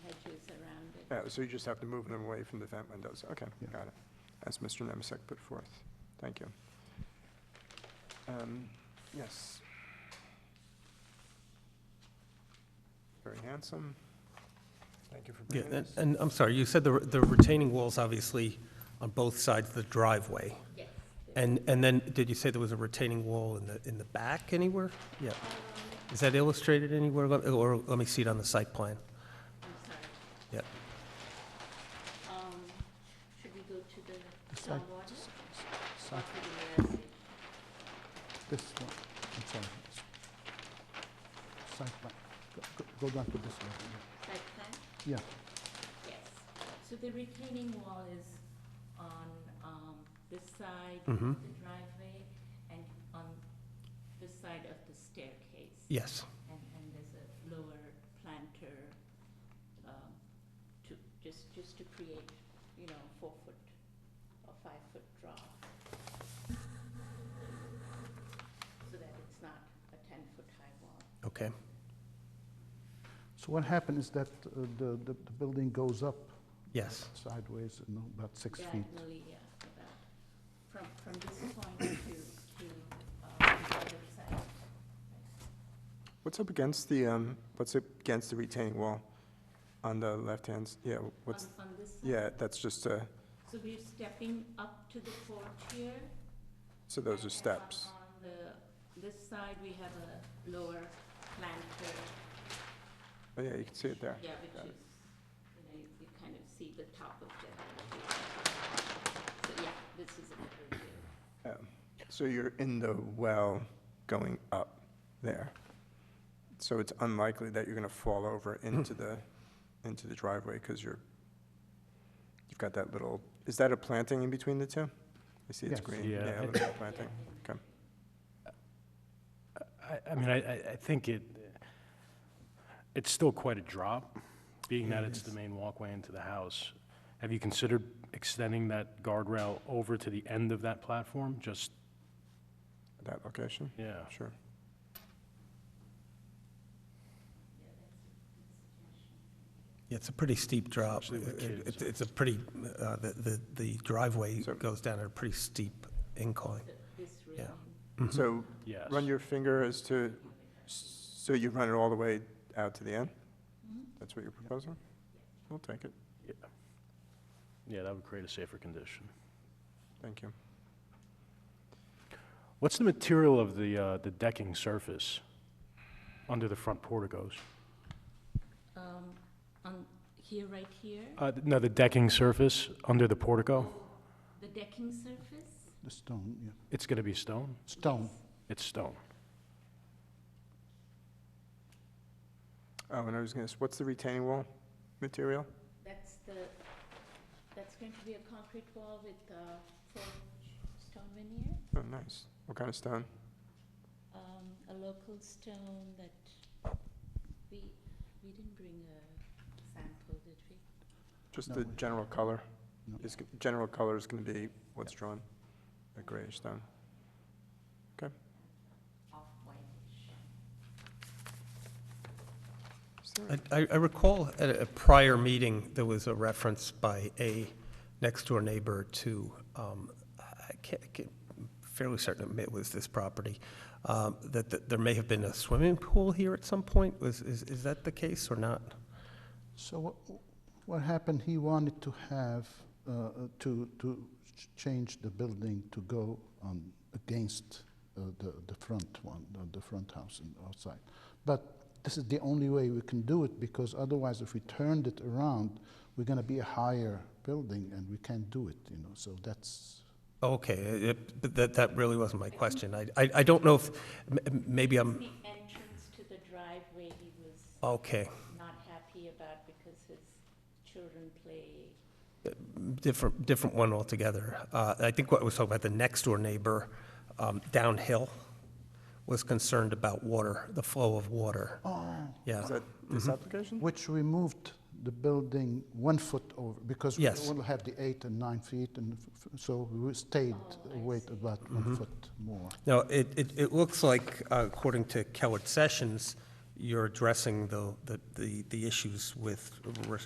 Yeah, Oh, so you just have to move them away from the vent windows. Okay, Yeah. got it. As Mr. Nemisak put forth. Thank you. Um, Yes. Very handsome. Thank you for Yeah, bringing and, this. and I'm sorry, you said the, the retaining walls, obviously, on both sides of the driveway. Yes. And, and then, did you say there was a retaining wall in the, in the back anywhere? Yeah. Is that illustrated anywhere, Let- or let me see it on the site plan? I'm sorry. Yeah. Um, should we go to the It's like- stormwater? So, Or to the ARC? This one, I'm sorry. Site plan. Go- go- Go back to this one. Site plan? Yeah, Yes. So the retaining wall is on, um, this side of Mhm. the driveway and on this side of the staircase. Yes, And, and there's a lower planter, um, to, just, just to create, you know, four foot or five foot drop. So that it's not a ten foot high wall. okay. so what happened is that uh, the, the the building goes up Yes, sideways, you know, about six feet. Diagonally, yeah, about, from, from this point to, to, uh, the other side. What's up against the, um? what's up against the retaining wall on the left hand? s Yeah, what's, On, on this side. yeah, that's just, uh, So we're stepping up to the porch here. so those are And steps. On on the, this side, we have a lower planter, Oh, yeah, you can see it there. yeah, which got it. is, you know, you you kind of see the top of the So, yeah, this is an overview. Um, So you're in the well going up there. So it's unlikely that you're going to fall over into the, into the driveway because you're, you've got that little, is that a planting in between the two? I see it's Yes. green. Yeah, Yeah, a I- little planting. Okay. I, I mean, I, I- I think it, it's still quite a drop, being that it's the main walkway into the house. Have you considered extending that guardrail over to the end of that platform? Just, That location? yeah. Sure. Yeah, it's a pretty steep drop. Especially with It- kids. It's, it's a pretty, uh, the, the- the driveway So- goes down at a pretty steep incline. So this Yeah. railing. So Yes. run your finger as to, so you run it all the way out to the end? That's what you're proposing? We'll take it. Yeah. Yeah, that would create a safer condition. Thank you. What's the material of the, uh, the decking surface under the front porticos? Um, on, here, right here, Uh, no, the decking surface under the portico? the decking surface? The stone, yeah. It's gonna be stone? Stone. It's stone. Oh, and I was going to, what's the retaining wall material? That's the, that's going to be a concrete wall with, uh, forged stone veneer, Oh, nice. What kind of stone? um, a local stone that we, we didn't bring a sample, did we? Just No the way. general color? No. Is, g- general color is gonna be what's drawn, a grayish stone. off-whitish. Is there a- I, I I recall at a prior meeting, there was a reference by a next-door neighbor to, um, I can't, I can't- fairly certain it was this property, um, that, that there may have been a swimming pool here at some point, was, is, is that the case or not? So what, what happened, he wanted to have, uh, uh, to, to ch- change the building to go on against uh, the, the front one, the- the front house and outside. But this is the only way we can do it because otherwise if we turned it around, we're gonna be a higher building and we can't do it, you know, so that's, Okay, it- it- but that, that really wasn't my question, I, I, I don't know if, m- m- maybe I'm, The entrance to the driveway he was okay, not happy about because his children play. different, different one altogether. Uh, I think what was talking about, the next-door neighbor um, downhill was concerned about water, the flow of water. oh. Yeah, Is that this application? Which we moved the building one foot over, because we Yes. will have the eight and nine feet, and f- f- so we stayed Oh, I wait see. about one foot more. no, it, it, it looks like, uh, according to Kellett Sessions, you're addressing the, the- the, the issues with re-